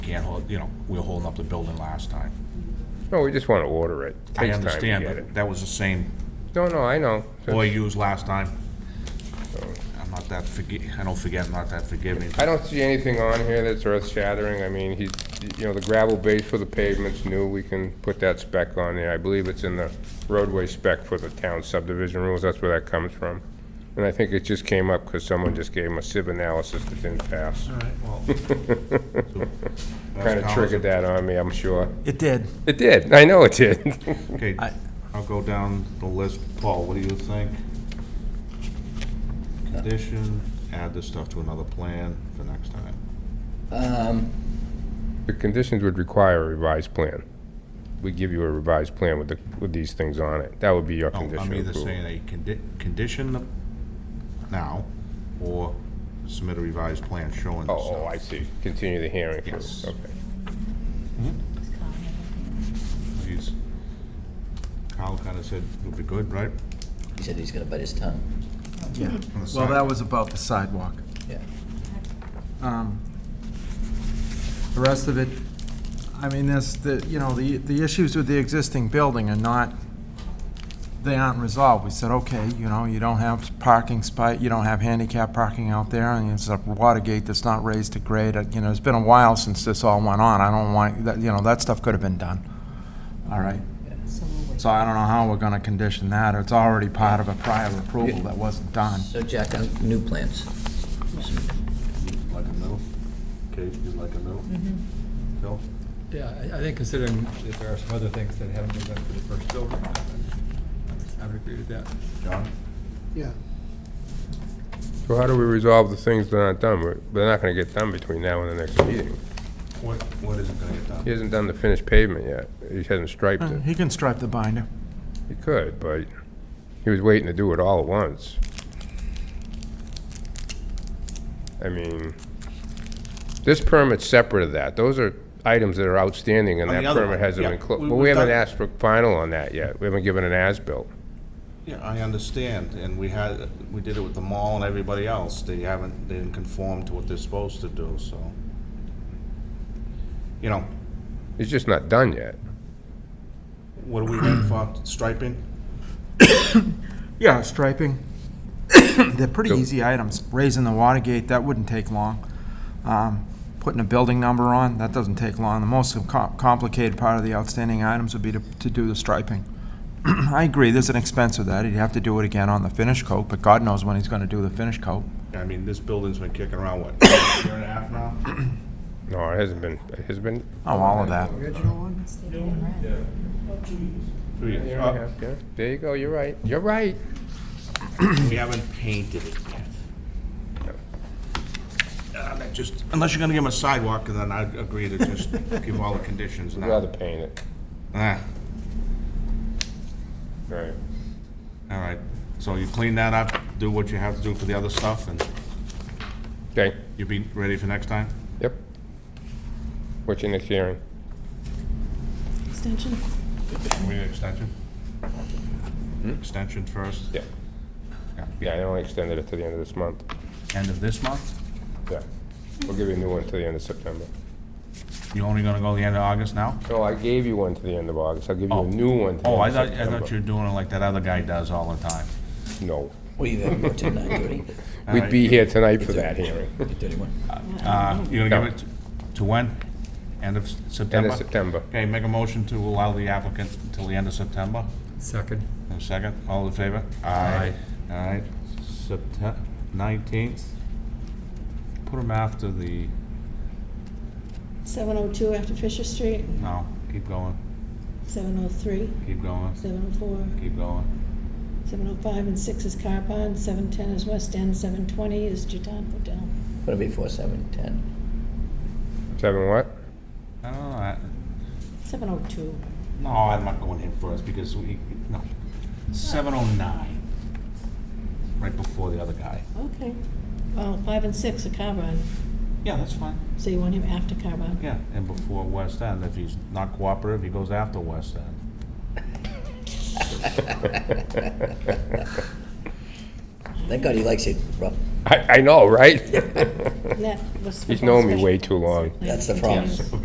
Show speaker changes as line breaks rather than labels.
can't hold, you know, we were holding up the building last time.
No, we just want to order it.
I
Takes time to
understand,
get
but that was the same
it. No, no, I know.
boy used last time. I'm not that forgi, I don't forget, I'm not that forgiving.
I don't see anything on here that's earth shattering. I mean, he, you know, the gravel base for the pavement's new. We can put that spec on there. I believe it's in the roadway spec for the town subdivision rules. That's where that comes from. And I think it just came up because someone just gave him a sieve analysis that didn't pass.
All right, well,
Kind of triggered that on me, I'm sure.
it did.
It did. I know it did.
Okay,
I-
I'll go down the list. Paul, what do you think? Condition, add this stuff to another plan for next time.
Um,
The conditions would require a revised plan. We give you a revised plan with the, with these things on it. That would be your
No,
condition
Oh, I'm either
approval.
saying a condi- condition the- now, or submit a revised plan showing this
Oh, oh,
stuff.
I see. Continue the hearing. for-
Yes.
Okay.
He's- Kyle kinda said it would be good, right?
he said he's gonna bite his tongue.
Yeah.
On the
Well,
side.
that was about the sidewalk.
Yeah.
Um, The rest of it, I mean, this, the, you know, the, the issues with the existing building are not, they aren't resolved. We said, okay, you know, you don't have parking spot, you don't have handicap parking out there, and it's a water gate that's not raised to grade. Uh, You know, it's been a while since this all went on. I don't want, that, you know, that stuff could have been done. All right? So I don't know how we're gonna condition that. It's already part of a prior approval that wasn't done.
So Jack, uh, new plans.
Like a middle? Kate, you like a middle?
Mm-hmm.
Phil?
Yeah, I, I think considering that there are some other things that haven't been done for the first building, I- I would agree with that.
John?
Yeah.
So how do we resolve the things that aren't done? We're- They're not gonna get done between now and the next meeting.
What, what isn't gonna get
He
done?
hasn't done the finished pavement yet. He hasn't striped
Uh,
it.
Uh-huh.
He can stripe the binder.
He could, but he was waiting to do it all at once. I mean, this permit's separate of that. Those are items that are outstanding and
On
that
the other
permit
one,
hasn't
yeah.
been closed.
We-
But
we've
we haven't
done-
asked for final on that yet. We haven't given an as-built.
Yeah, I understand, and we had, we did it with the mall and everybody else, they haven't, they didn't conform to what they're supposed to do, so. You know,
It's just not done yet.
what do we waiting for, striping?
Yeah, striping. They're pretty
Go.
easy items. Raising the water gate, that wouldn't take long. Um, Putting a building number on, that doesn't take long. The most com- complicated part of the outstanding items would be to, to do the striping. I agree, there's an expense with that. He'd have to do it again on the finish coat, but God knows when he's gonna do the finish coat.
I mean, this building's been kicking around, what, a year and a half now?
No, it hasn't been, it has been.
Oh, all of that.
Two years. Uh,
Yeah, There you go, you're right. You're right.
We haven't painted it yet. Uh, that Just, unless you're gonna give them a sidewalk, and then I'd agree to just give all the conditions
I'd rather
now.
paint it.
Ah,
Right.
all right, so you clean that up, do what you have to do for the other stuff, and
Okay,
you'll be ready for next time?
yep. What's your next hearing?
Extension?
We need extension? Extension first?
Hmm? Yeah. Yeah, I only extended it to the end of this month.
End of this month?
Yeah. We'll give you a new one to the end of September.
You only gonna go the end of August now?
No, I gave you one to the end of August. I'll give you
Oh.
a new one to the
Oh, I
end
thought, I
of
thought you
September.
were doing it like that other guy does all the time.
No.
What are you having for tonight, thirty?
We'd
right.
be here tonight for that hearing.
Thirty-one.
Uh, You're gonna
No.
give it to- to when? End of
End
September?
of September.
Okay, make a motion to allow the applicant until the end of September.
Second.
And a second, all in favor? All right, September 19th. Put him after the,
702 after Fisher Street,
no, keep going,
703,
keep going,
704,
keep going.
705, and 6 is Car Pond, 710 is West End, 720 is Juton Hotel.
What'll be four, seven, ten?
Seven what?
I don't know, I-
702.
No, I'm not going in first because we, no. Seven oh nine. Right before the other guy.
Okay. Well, 5 and 6 are Car Pond,
Yeah, that's fine.
so you want him after Car Pond?
Yeah, and before West End. If he's not cooperative, he goes after West End.
Thank God he likes it, Rob.
I, I know, right?
That was.
He's known me way too long.
That's the problem.